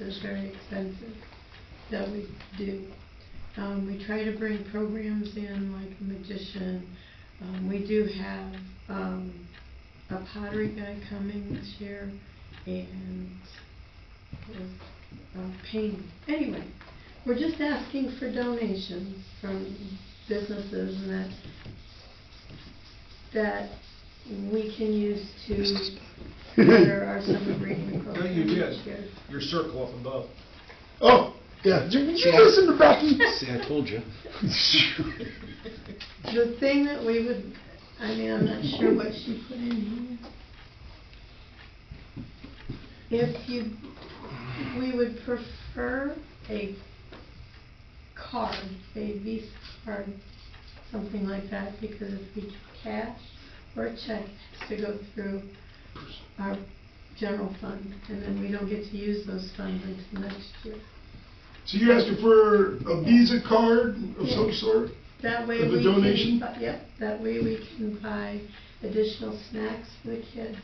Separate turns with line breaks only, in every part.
is very expensive that we do. Um, we try to bring programs in like magician. Um, we do have, um, a pottery guy coming this year and uh, painting. Anyway, we're just asking for donations from businesses and that, that we can use to better our summer reading
No,
program.
you
this year.
did. Your circle up above.
Oh, yeah, did you listen to Becky?
See, I told you.
The thing that we would, I mean, I'm not sure what she put in here. If you, we would prefer a card, a Visa card, something like that, because if we cash or a check, it has to go through our general fund, and then we don't get to use those funds until next year.
So you asking for a Visa card of some sort?
That way
With
we
the
can,
donation?
bu- yep, that way we can buy additional snacks for the kids,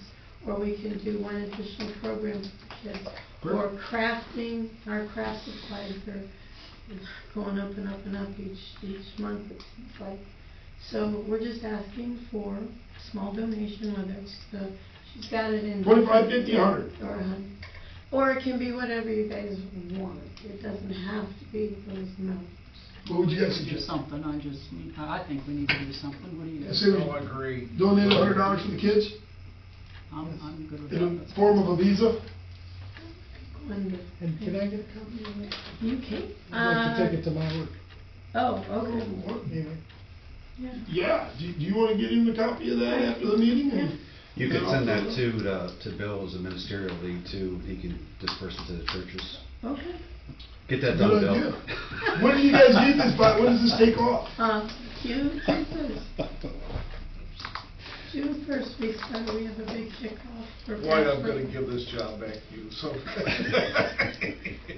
or we can do one additional program for the kids. Or crafting, our craft supplies are going up and up and up each, each month, it seems like. So we're just asking for a small donation, whether it's the, she's got it in.
25, 50,
Yeah,
100.
Or a hundred. Or it can be whatever you guys want, it doesn't have to be those amounts.
What would you guys
Do
suggest?
something, I just, need- I I think we need to do something, what do you,
Say we
Oh, I agree.
donate a hundred dollars for the kids
I'm, I'm good with
in
that.
the form of a Visa?
Wonderful.
And can I get a copy of that?
You can. Uh,
I'd like to take it to my work.
Oh, okay.
Anyway,
Yeah.
Uh, Yeah, do, do you wanna get him a copy of that after the meeting?
Yeah.
You could send that to, the- to Bill as a ministerial lead too, he can disperse it to the churches.
Okay.
Get that done,
Good
Bill.
idea. When do you guys need this by, when does this take off?
Uh, June first. June first, we start, we have a big kickoff. for
Why, I'm gonna
Pittsburgh.
give this job back to you, so.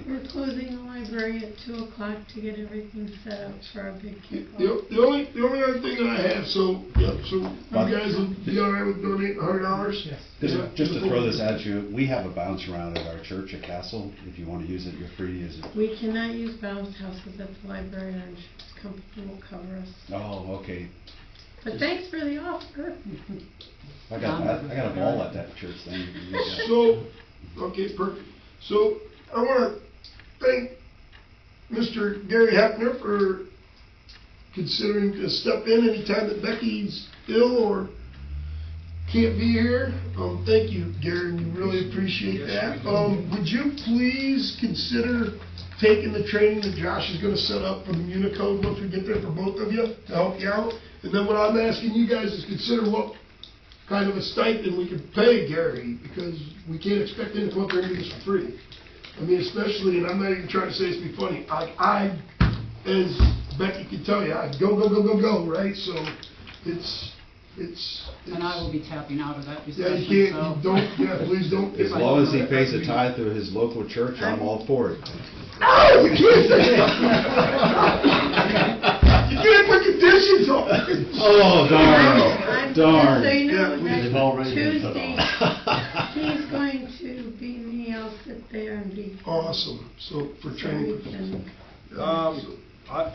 We're closing the library at two o'clock to get everything set up for our big
The,
kickoff.
the only, the only other thing that I have, so, yeah, so you guys would be all right with donating a hundred dollars?
yes.
Just, just to throw this at you, we have a bounce around at our church at Castle, if you wanna use it, you're free to use it.
We cannot use bounce houses at the library, our insurance company will cover us.
Oh, okay,
But thanks for the offer.
I got, I got a ball at that church thing.
So, okay, perfect. So, I want to thank Mr. Gary Hefner for considering to step in anytime that Becky's ill or can't be here. Um, thank you, Gary, we really appreciate
Yes,
that.
we do.
Um, would you please consider taking the training that Josh is gonna set up for the Unicode once we get there for both of you to help you out? And then what I'm asking you guys is consider what kind of a stipend we could pay Gary, because we can't expect him to come up there and do this for free. I mean, especially, and I'm not even trying to say this to be funny, I, I, as Becky can tell you, I go, go, go, go, go, right? So it's, it's.
And I will be tapping out of that
Yeah,
discussion, so.
you can't, you don't, yeah, please don't.
As long as he pays a tithe to his local church, I'm all for it.
No, you can't say that. You can't put conditions on.
Oh,
I'm-
darn, darn.
So you know,
Yeah, we've already been put
Tuesday, he's going to be me, I'll sit there and be.
Awesome, so for training. purposes.
Um, I,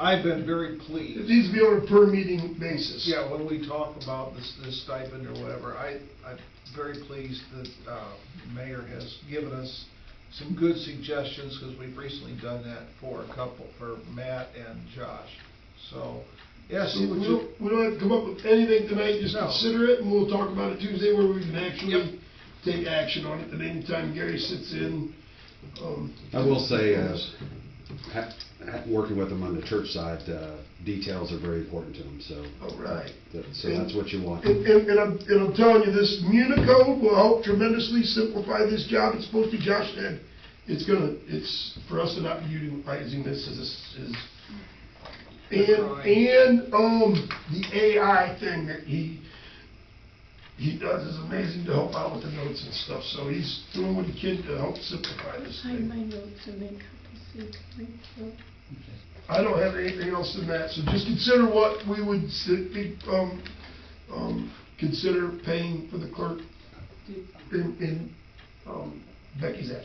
I've been very
It
pleased.
needs to be on a per meeting basis.
Yeah, when we talk about this, this stipend or whatever, I, I'm very pleased that, uh, mayor has given us some good suggestions, because we've recently done that for a couple, for Matt and Josh. So, yes,
So
it
we
would
don't, we don't have to come up with anything tonight, just
No.
consider it, and we'll talk about it Tuesday where we can
Yep.
actually take action on it, and anytime Gary sits in, um.
I will say, uh, ha- ha- working with them on the church side, uh, details are very important to them, so.
All right.
that- So that's what you want.
And, and, and I'm, and I'm telling you, this Municode will help tremendously simplify this job, it's supposed to be Josh did. It's gonna, it's for us to not be utilizing this as, a- as. And, and, um, the AI thing that he, he does is amazing to help out with the notes and stuff, so he's doing what he can to help simplify this
Find
thing.
my notes and make copies so you can read through.
I don't have anything else in that, so just consider what we would, si- be- um, um, consider paying for the clerk in, in, um, Becky's absence.